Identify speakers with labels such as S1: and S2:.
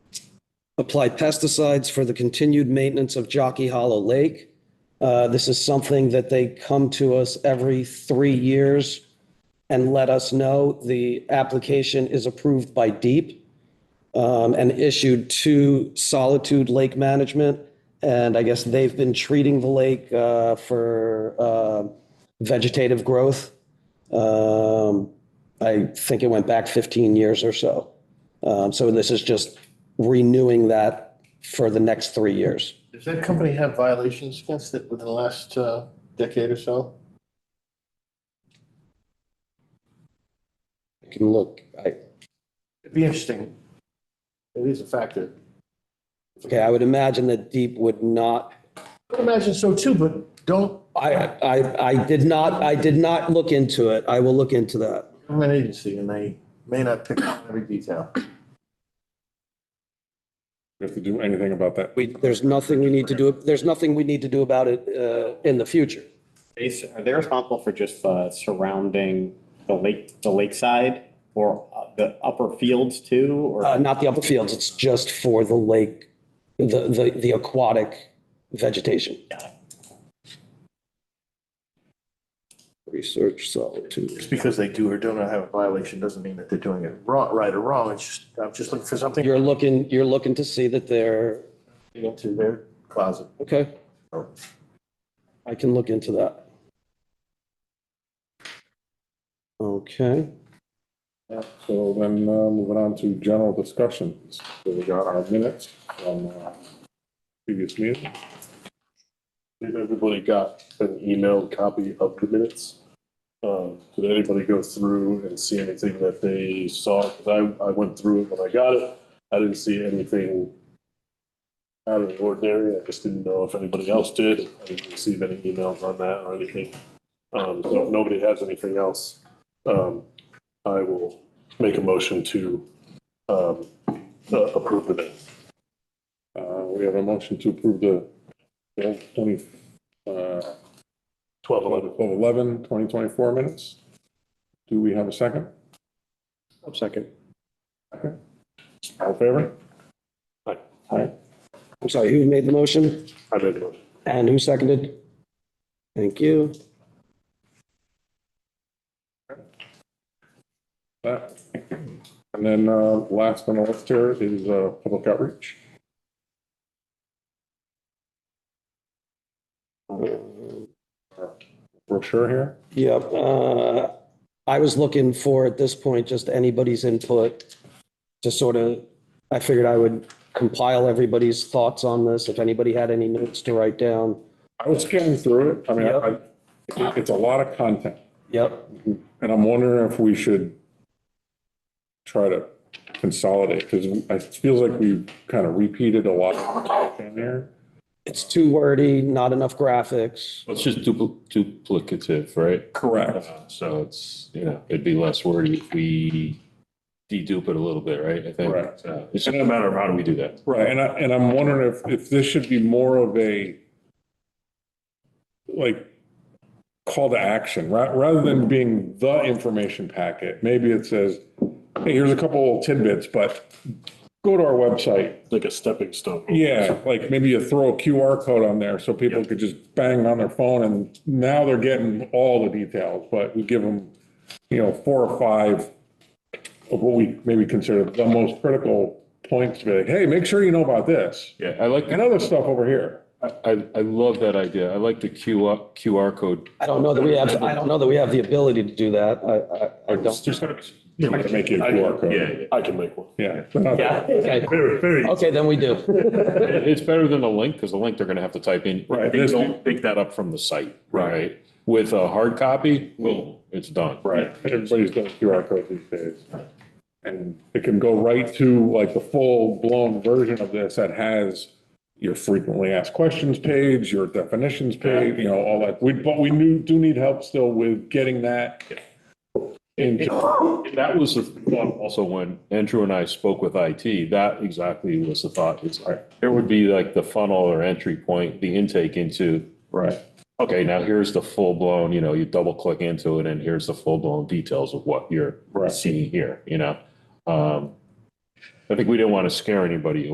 S1: apply pesticides for the continued maintenance of Jockey Hollow Lake. Uh, This is something that they come to us every three years and let us know. The application is approved by DEEP um, and issued to Solitude Lake Management. And I guess they've been treating the lake uh, for uh, vegetative growth. Um, I think it went back 15 years or so. Um, So this is just renewing that for the next three years.
S2: Does that company have violations against it within the last uh, decade or so?
S1: I can look, I,
S2: It'd be interesting. It is a factor.
S1: okay, I would imagine that Deep would not,
S2: I would imagine so too, but don't,
S1: I, I, I did not, I did not look into it. I will look into that.
S2: I'm an agency and they may not pick up every detail.
S3: We have to do anything about that.
S1: We, there's nothing we need to do, there's nothing we need to do about it uh, in the future.
S4: They s- Are they responsible for just uh, surrounding the lake, the lakeside or uh, the upper fields too?
S1: Uh,
S4: Or
S1: Not the upper fields, it's just for the lake, the, the, the aquatic vegetation. Research solitude.
S2: Just because they do or do not have a violation doesn't mean that they're doing it wrong, right or wrong. It's just, I'm just looking for something
S1: You're looking, you're looking to see that they're,
S2: into their closet.
S1: okay, I can look into that. Okay,
S3: Yeah, So then uh, moving on to general discussions. So we got our minutes from uh, previous meeting. Did everybody got an emailed copy of the minutes? Um, Did anybody go through and see anything that they saw? 'Cause I, I went through it when I got it. I didn't see anything out of the ordinary. I just didn't know if anybody else did. I didn't receive any emails on that or anything. Um, So if nobody has anything else, um, I will make a motion to um, uh, approve the minutes. Uh, We have a motion to approve the 20, uh, 12, 11, 11, 2024 minutes. Do we have a second?
S1: second.
S3: All in favor? Aye. Aye.
S1: I'm sorry, who made the motion
S3: I made the motion.
S1: and who seconded? Thank you.
S3: That. And then uh, last on the list here is uh, public outreach. Brochure here.
S1: Yep, uh, I was looking for, at this point, just anybody's input to sort of, I figured I would compile everybody's thoughts on this, if anybody had any notes to write down.
S3: I was scanning through it. I mean, I-
S1: Yep.
S3: I- it's a lot of content.
S1: Yep,
S3: And I'm wondering if we should try to consolidate, because it feels like we've kind of repeated a lot in there.
S1: it's too wordy, not enough graphics.
S5: Well, It's just dupli- duplicative, right?
S3: Correct.
S5: Uh, So it's, you know, it'd be less wordy if we dedupe it a little bit, right? I think.
S3: Correct.
S5: Uh, It's just a matter of how do we do that?
S3: Right, and I, and I'm wondering if, if this should be more of a, like, call to action, ra- rather than being the information packet, maybe it says, hey, here's a couple tidbits, but go to our website.
S6: like a stepping stone.
S3: Yeah, like maybe you throw a QR code on there so people could just bang on their phone and now they're getting all the details, but we give them, you know, four or five of what we maybe consider the most critical points to be like, hey, make sure you know about this
S5: Yeah, I like,
S3: and other stuff over here.
S5: I, I love that idea. I like the QR, QR code.
S1: I don't know that we have, I don't know that we have the ability to do that. I, I, I don't.
S3: I'm gonna make you a QR code.
S6: I can make one.
S3: Yeah. They're not-
S1: Okay,
S6: Very, very.
S1: okay, then we do.
S5: It- It's better than a link, because the link they're gonna have to type in.
S3: Right.
S5: They don't pick that up from the site, right? With a hard copy, boom, it's done.
S3: Right, everybody's doing QR codes these days. And it can go right to like the full-blown version of this that has your frequently asked questions page, your definitions page, you know, all that. We, but we knew, do need help still with getting that. into
S5: That was the thought also when Andrew and I spoke with IT, that exactly was the thought. It's like, there would be like the funnel or entry point, the intake into,
S3: right.
S5: okay, now here's the full blown, you know, you double click into it and here's the full blown details of what you're
S3: Right.
S5: seeing here, you know? Um, I think we didn't want to scare anybody